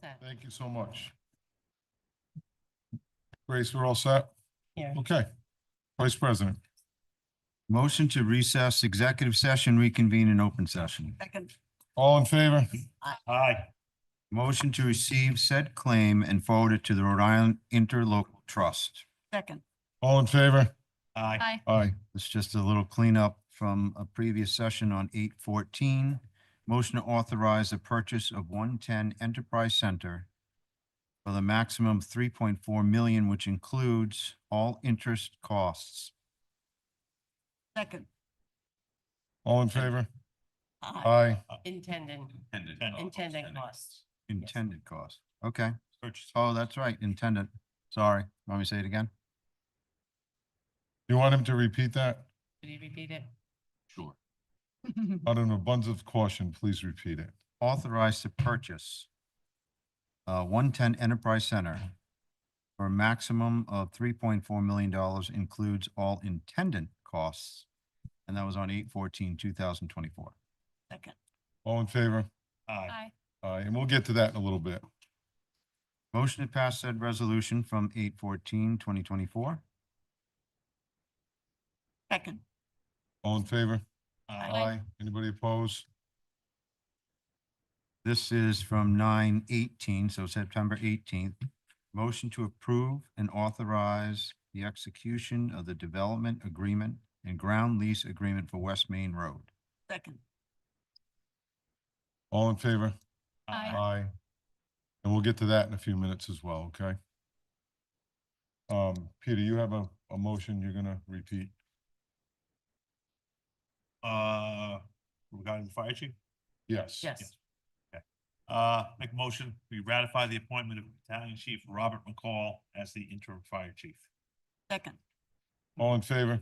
set. Thank you so much. Grace, we're all set? Yeah. Okay. Vice President, Motion to recess executive session, reconvene in open session. Second. all in favor? Aye. Motion to receive said claim and forward it to the Rhode Island Interlocal Trust. Second. All in favor? Aye. Aye. It's just a little cleanup from a previous session on eight fourteen. Motion to authorize the purchase of one-ten Enterprise Center for the maximum three point four million, which includes all interest costs. Second. All in favor? Aye. Aye. Intending, Intended. intending costs. Intended cost. Okay. Purchase. Oh, that's right, intended. Sorry. Want me to say it again? You want him to repeat that? Did he repeat it? Sure. Out of an abundance of caution, please repeat it. authorized to purchase uh, 110 Enterprise Center for a maximum of $3.4 million includes all intended costs. And that was on 8/14/2024. Second. All in favor? Aye. Aye, and we'll get to that in a little bit. Motion to pass said resolution from 8/14/2024. Second. All in favor? Aye. Anybody opposed? This is from 9/18, so September 18th. Motion to approve and authorize the execution of the development agreement and ground lease agreement for West Main Road. Second. All in favor? Aye. Uh, Aye. And we'll get to that in a few minutes as well, okay? Um, Peter, you have a, a motion you're gonna repeat? Uh, regarding the fire chief, Yes. Yes. uh, make a motion, we ratify the appointment of Battalion Chief Robert McCall as the interim fire chief. Second. All in favor?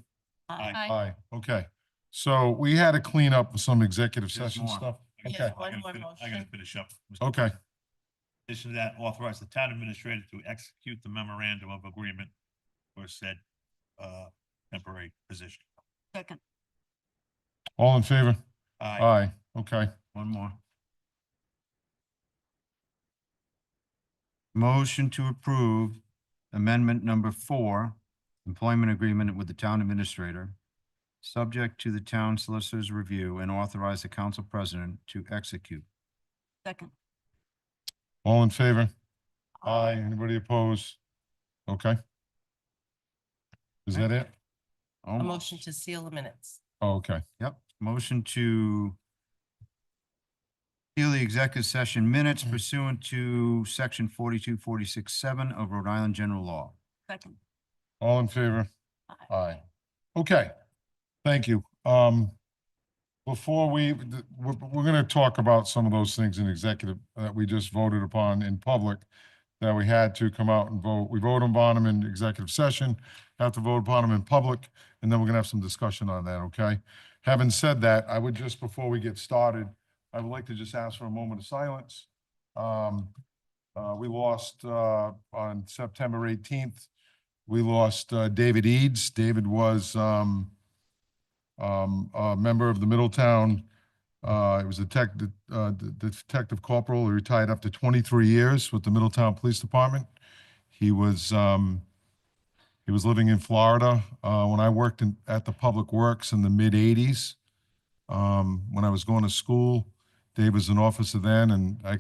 Aye. Aye, okay. So we had to clean up some executive There's session more. stuff. I Yes, Okay, Oh, one gotta more fin- I motion. gotta finish up. Mr. okay. In addition to that, authorize the town administrator to execute the memorandum of agreement for said, uh, temporary position. Second. All in favor? Aye. Aye, okay. One more. Motion to approve amendment number four, employment agreement with the town administrator, subject to the town solicitor's review and authorize the council president to execute. Second. All in favor? Aye, anybody opposed? Okay. Is that it? A Almost. motion to seal the minutes. Oh, Okay, Yep, motion to seal the executive session minutes pursuant to section forty-two, forty-six, seven of Rhode Island general law. Second. all in favor? Aye. Okay, thank you. Um, before we, th- we're, we're gonna talk about some of those things in executive uh, that we just voted upon in public that we had to come out and vote. We vote upon them in executive session, have to vote upon them in public, and then we're gonna have some discussion on that, okay? Having said that, I would just, before we get started, I would like to just ask for a moment of silence. Um, uh, we lost, uh, on September eighteenth, we lost uh, David Eads. David was um, um, a member of the Middletown, uh, he was a tech, uh, de- detective corporal, he retired after 23 years with the Middletown Police Department. He was, um, he was living in Florida uh, when I worked in, at the Public Works in the Um, mid-'80s. When I was going to school, Dave was an officer then, and I